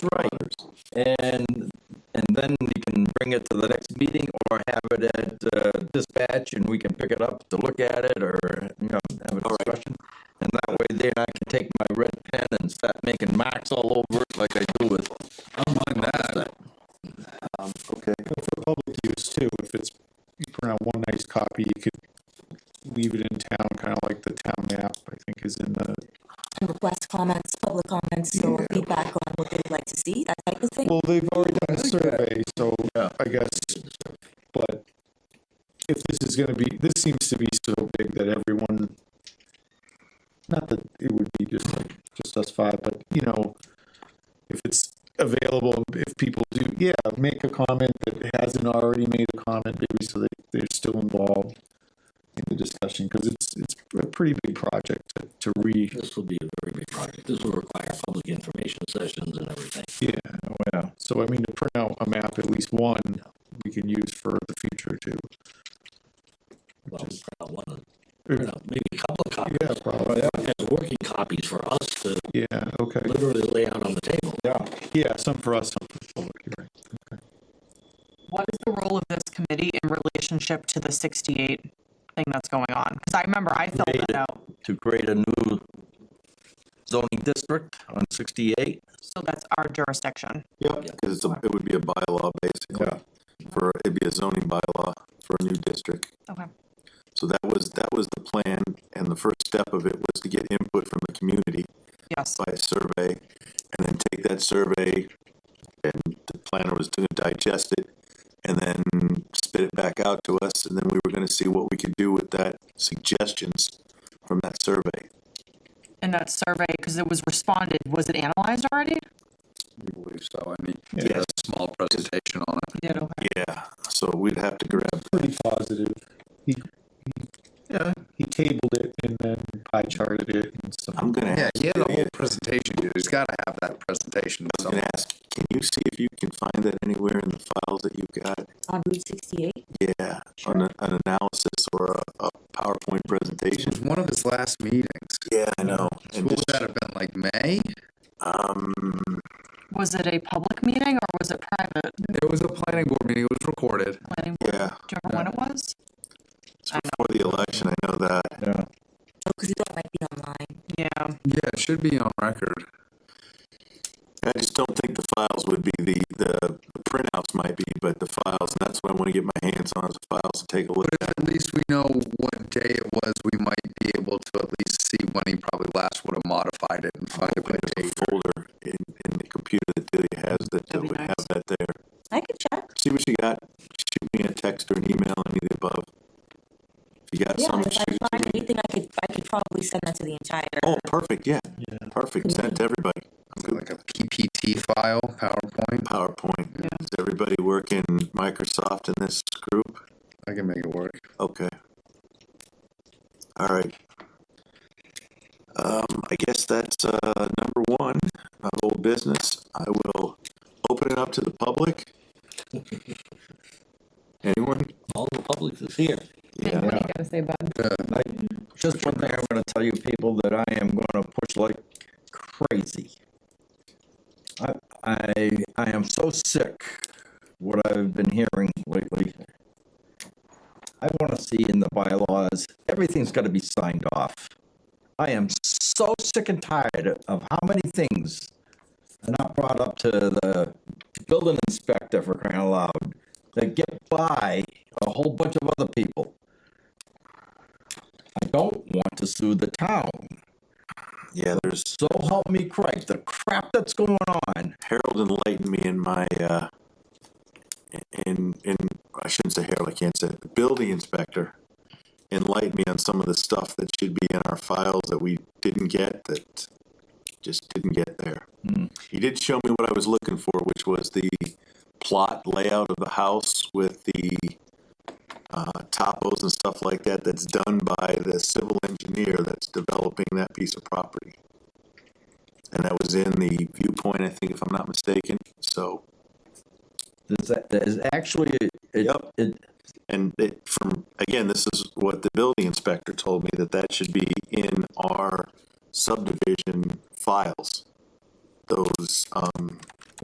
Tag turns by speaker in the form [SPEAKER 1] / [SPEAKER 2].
[SPEAKER 1] Right. And, and then we can bring it to the next meeting or have it at uh, dispatch and we can pick it up to look at it or, you know, have a discussion. And that way then I can take my red pen and start making marks all over it like I do with. Oh my God.
[SPEAKER 2] Okay,
[SPEAKER 3] But for public use too, if it's, you print out one nice copy, you could leave it in town, kind of like the town map, I think is in the,
[SPEAKER 4] and request comments, public comments, or feedback on what they'd like to see, that type of thing.
[SPEAKER 3] well, they've already done a survey, so
[SPEAKER 1] Yeah.
[SPEAKER 3] I guess, but if this is gonna be, this seems to be so big that everyone, not that it would be just like, just us five, but you know, if it's available, if people do, yeah, make a comment that hasn't already made a comment, maybe so they, they're still involved in the discussion, because it's, it's a pretty big project to, to re,
[SPEAKER 5] This will be a very big project. This will require public information sessions and everything.
[SPEAKER 3] yeah.
[SPEAKER 1] Yeah.
[SPEAKER 3] So I mean, to print out a map, at least one, we can use for the future too.
[SPEAKER 5] Well, print out one, of- print
[SPEAKER 3] Yeah,
[SPEAKER 5] out maybe a couple of copies.
[SPEAKER 3] probably,
[SPEAKER 5] As working copies for us to
[SPEAKER 3] Oh, yeah, okay,
[SPEAKER 5] literally lay out on the table.
[SPEAKER 1] Yeah.
[SPEAKER 3] yeah, some for us, some for the public, you're right.
[SPEAKER 6] what is the role of this committee in relationship to the sixty-eight thing that's going on? Cause I remember I filled
[SPEAKER 1] Create it.
[SPEAKER 6] that out,
[SPEAKER 1] To create a new zoning district on sixty-eight.
[SPEAKER 6] so that's our jurisdiction.
[SPEAKER 2] yeah, because it's a, it would be a bylaw basically, for, it'd be a zoning bylaw for a new district.
[SPEAKER 6] Okay.
[SPEAKER 2] So that was, that was the plan, and the first step of it was to get input from the community
[SPEAKER 6] Yes,
[SPEAKER 2] by a survey, and then take that survey, and the planner was gonna digest it, and then spit it back out to us, and then we were gonna see what we could do with that suggestions from that survey.
[SPEAKER 6] and that survey, cause it was responded, was it analyzed already?
[SPEAKER 7] So I mean,
[SPEAKER 3] Yeah.
[SPEAKER 7] did a small presentation on it.
[SPEAKER 6] Yeah. Okay.
[SPEAKER 2] Yeah, so we'd have to grab,
[SPEAKER 3] Pretty positive, he, he,
[SPEAKER 7] Yeah.
[SPEAKER 3] he tabled it and then pie charted it and stuff.
[SPEAKER 2] I'm gonna
[SPEAKER 7] Yeah,
[SPEAKER 2] ask,
[SPEAKER 7] he had a whole presentation, dude. He's gotta have that presentation.
[SPEAKER 2] I'm gonna ask, can you see if you can find that anywhere in the files that you've got?
[SPEAKER 4] On Route sixty-eight,
[SPEAKER 2] Yeah, on a- an analysis or a, a PowerPoint
[SPEAKER 7] It was
[SPEAKER 2] presentation.
[SPEAKER 7] one of his last meetings.
[SPEAKER 2] Yeah, I know.
[SPEAKER 7] What
[SPEAKER 2] And
[SPEAKER 7] would
[SPEAKER 2] just,
[SPEAKER 7] that have been, like May?
[SPEAKER 2] um,
[SPEAKER 6] Was it a public meeting or was it private?
[SPEAKER 7] It was a planning board meeting. It was recorded.
[SPEAKER 6] planning board?
[SPEAKER 2] yeah,
[SPEAKER 6] Do you remember when it was?
[SPEAKER 2] it's before the election, I know that.
[SPEAKER 1] Yeah.
[SPEAKER 4] because oh, you thought it might be online.
[SPEAKER 6] Yeah.
[SPEAKER 7] Yeah, it should be on record.
[SPEAKER 2] I just don't think the files would be the, the the printouts might be, but the files, and that's what I want to get my hands on, is the files to take a look at.
[SPEAKER 7] But if at least we know what day it was, we might be able to at least see when he probably last would have modified it and find a by
[SPEAKER 2] There's
[SPEAKER 7] date.
[SPEAKER 2] a folder in, in the computer that Delia has that that
[SPEAKER 6] That'd be
[SPEAKER 2] would have
[SPEAKER 6] nice.
[SPEAKER 2] that there.
[SPEAKER 4] I could check.
[SPEAKER 2] See what you got, shoot me a text or an email, any of the above. If you got
[SPEAKER 4] Yeah,
[SPEAKER 2] some,
[SPEAKER 4] if I
[SPEAKER 2] shoot it
[SPEAKER 4] find
[SPEAKER 2] to me.
[SPEAKER 4] anything, I could, I could probably send that to the entire.
[SPEAKER 2] Oh, perfect, yeah,
[SPEAKER 3] Yeah.
[SPEAKER 2] perfect, send it to everybody. I'm good.
[SPEAKER 7] Like a PPT file, PowerPoint.
[SPEAKER 2] PowerPoint,
[SPEAKER 6] Yeah.
[SPEAKER 2] does everybody work in Microsoft in this group?
[SPEAKER 7] I can make it work.
[SPEAKER 2] Okay. All right. Um, I guess that's, uh, number one, of old business. I will open it up to the public. Anyone?
[SPEAKER 5] All the public is here.
[SPEAKER 2] Yeah.
[SPEAKER 6] do you gotta say, Bud?
[SPEAKER 1] I, just one thing I'm gonna tell you people that I am gonna push like crazy. I, I, I am so sick what I've been hearing lately. I wanna see in the bylaws, everything's gotta be signed off. I am so sick and tired of how many things are not brought up to the building inspector for crying out loud. That get by a whole bunch of other people. I don't want to sue the town.
[SPEAKER 2] Yeah, there's,
[SPEAKER 1] So help me Christ, the crap that's going on.
[SPEAKER 2] Harold enlightened me in my, uh, in, in, I shouldn't say Harold, I can't say, it. the building inspector enlightened me on some of the stuff that should be in our files that we didn't get, that just didn't get there. He did show me what I was looking for, which was the plot layout of the house with the uh, topos and stuff like that, that's done by the civil engineer that's developing that piece of property. And that was in the viewpoint, I think, if I'm not mistaken, so.
[SPEAKER 1] There's, a- there's actually, it,
[SPEAKER 2] Yep.
[SPEAKER 1] it,
[SPEAKER 2] And it, from, again, this is what the building inspector told me, that that should be in our subdivision files. those, um,